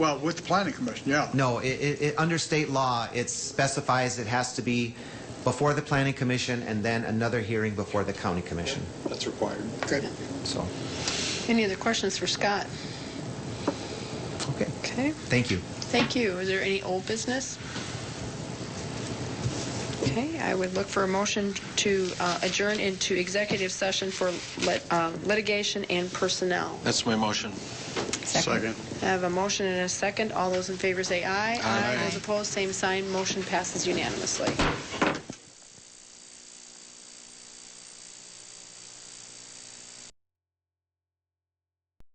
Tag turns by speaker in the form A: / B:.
A: Well, with the planning commission, yeah.
B: No, it, it, it, under state law, it specifies it has to be before the planning commission and then another hearing before the county commission,
C: That's required.
A: Okay.
B: so,
D: Any other questions for Scott?
B: okay.
D: Okay,
B: Thank you.
D: thank you. Is there any old business? Okay, I would look for a motion to uh, adjourn into executive session for lit- uh, litigation and personnel.
C: That's my motion.
A: Second.
D: I have a motion and a second. All those in favor say aye.
C: Aye.
D: Those opposed, same sign. Motion passes unanimously.